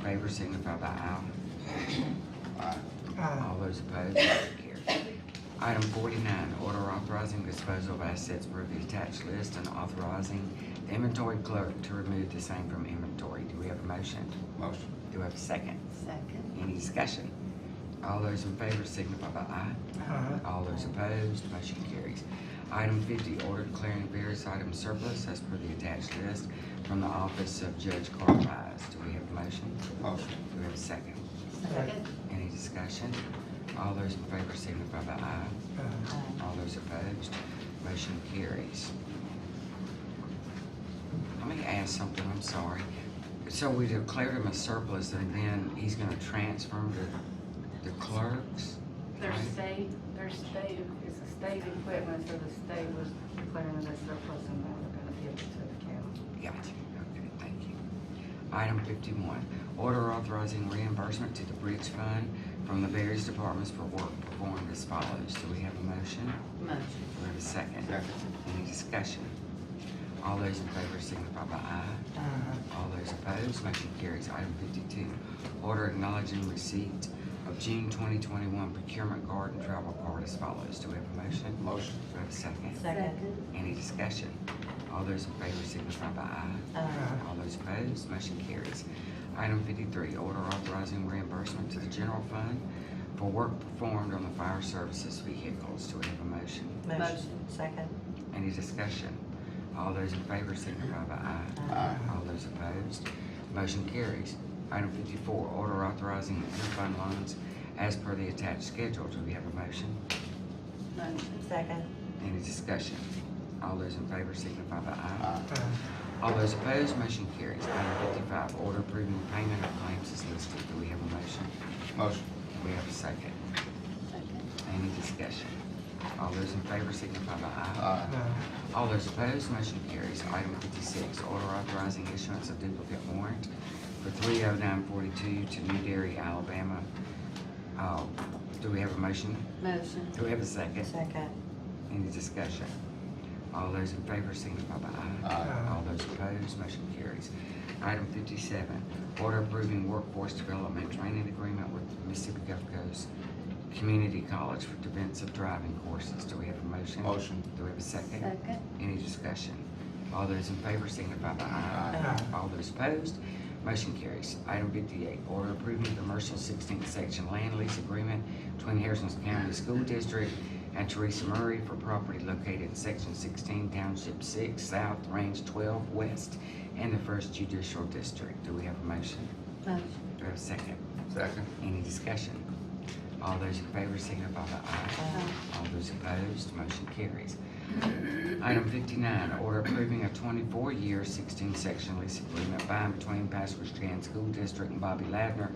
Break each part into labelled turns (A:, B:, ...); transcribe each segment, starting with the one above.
A: favor signify by aye.
B: Aye.
A: All those opposed, motion carries. Item forty-nine, order authorizing disposal of assets per the attached list and authorizing the inventory clerk to remove the same from inventory. Do we have a motion?
C: Motion.
A: Do we have a second?
D: Second.
A: Any discussion? All those in favor signify by aye.
B: Aye.
A: All those opposed, motion carries. Item fifty, order declaring various items surplus as per the attached list from the office of Judge Carl Wise. Do we have a motion?
C: Motion.
A: Do we have a second?
D: Second.
A: Any discussion? All those in favor signify by aye.
B: Aye.
D: Aye.
A: All those opposed, motion carries. Let me ask something, I'm sorry. So we declared him a surplus and then he's gonna transfer him to the clerks?
E: Their
A: Right.
E: state, their state, it's a state equipment, so the state was declaring it as surplus and they were gonna give it to the county.
A: Gotcha, okay, thank you. Item fifty-one, order authorizing reimbursement to the bridge fund from the various departments for work performed as follows. Do we have a motion?
D: Motion.
A: Do we have a second?
C: Second.
A: Any discussion? All those in favor signify by aye.
B: Aye.
A: All those opposed, motion carries. Item fifty-two, order acknowledging receipt of June twenty twenty-one procurement guard and travel card as follows. Do we have a motion?
C: Motion.
A: Do we have a second?
D: Second.
A: Any discussion? All those in favor signify by aye.
D: Aye.
A: All those opposed, motion carries. Item fifty-three, order authorizing reimbursement to the general fund for work performed on the fire services vehicles. Do we have a motion?
D: Motion. Second.
A: Any discussion? All those in favor signify by aye.
C: Aye.
A: All those opposed, motion carries. Item fifty-four, order authorizing interfund loans as per the attached schedule. Do we have a motion?
E: Motion.
D: Second.
A: Any discussion? All those in favor signify by aye.
C: Aye.
B: Aye.
A: All those opposed, motion carries. Item fifty-five, order approving payment of claims is listed. Do we have a motion?
C: Motion.
A: We have a second.
D: Second.
A: Any discussion? All those in favor signify by aye.
C: Aye.
B: Aye.
A: All those opposed, motion carries. Item fifty-six, order authorizing issuance of duplicate warrant for three oh nine forty-two to New Dairy, Alabama. Uh, do we have a motion?
D: Motion.
A: Do we have a second?
D: Second.
A: Any discussion? All those in favor signify by aye.
B: Aye.
A: All those opposed, motion carries. Item fifty-seven, order approving workforce development training agreement with Mississippi Gulf Coast Community College for defensive driving courses. Do we have a motion?
C: Motion.
A: Do we have a second?
D: Second.
A: Any discussion? All those in favor signify by aye.
B: Aye.
A: All those opposed, motion carries. Item fifty-eight, order approving commercial sixteenth section land lease agreement between Harrison County School District and Teresa Murray for property located in section sixteen, township six, south, range twelve, west, in the first judicial district. Do we have a motion?
D: Motion.
A: Do we have a second?
C: Second.
A: Any discussion? All those in favor signify by aye. All those opposed, motion carries. Item fifty-nine, order approving a twenty-four year, sixteen section lease agreement by and between Passwords Trans School District and Bobby Ladner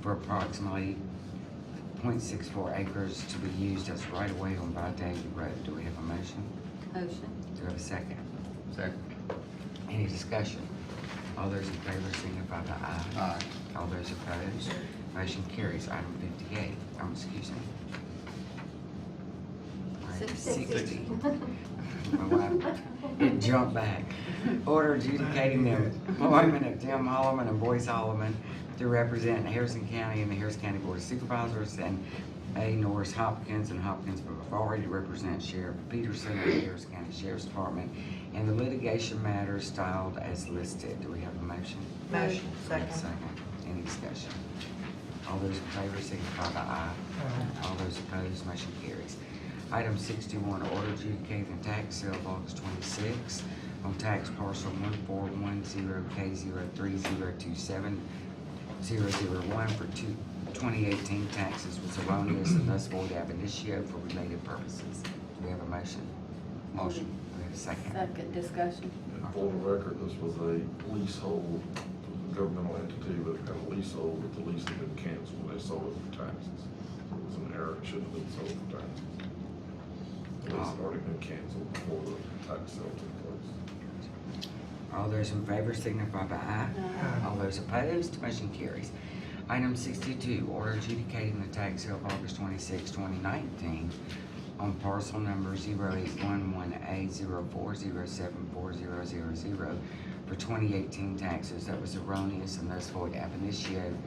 A: for approximately 0.64 acres to be used as right-of-way on Vidalia Road. Do we have a motion?
D: Motion.
A: Do we have a second?
C: Second.
A: Any discussion? All those in favor signify by aye.
C: Aye.
A: All those opposed, motion carries. Item fifty-eight, um, excuse me. Item Sixty. My wife, it jumped back. Order adjudicating the employment of Tim Holloman and Boyce Holloman to represent Harrison County and the Harrison County Board of Supervisors and A. Norris Hopkins and Hopkins Bavaria to represent Sheriff Peterson and the Harrison County Sheriff's Department in the litigation matter styled as listed. Do we have a motion?
D: Motion. Second.
A: Second. Any discussion? All those in favor signify by aye.
B: Aye.
A: All those opposed, motion carries. Item sixty-one, order adjudicating tax sale of August twenty-six on tax parcel one four one zero K zero three zero two seven zero zero one for two, twenty eighteen taxes was erroneous and thus void ab initio for related purposes. Do we have a motion?
C: Motion.
A: Do we have a second?
D: Second. Discussion.
F: And For the record, this was a leasehold, it was a governmental entity that had a leasehold, but the lease had been canceled, they sold it for taxes. It was an error, it shouldn't have been sold for taxes. The lease had already been canceled before the tax sale took place.
A: All those in favor signify by aye.
B: Aye.
A: All those opposed, motion carries. Item sixty-two, order adjudicating the tax sale of August 26, twenty nineteen on parcel number 811 A 4074000 for for twenty eighteen taxes that was erroneous and thus void ab initio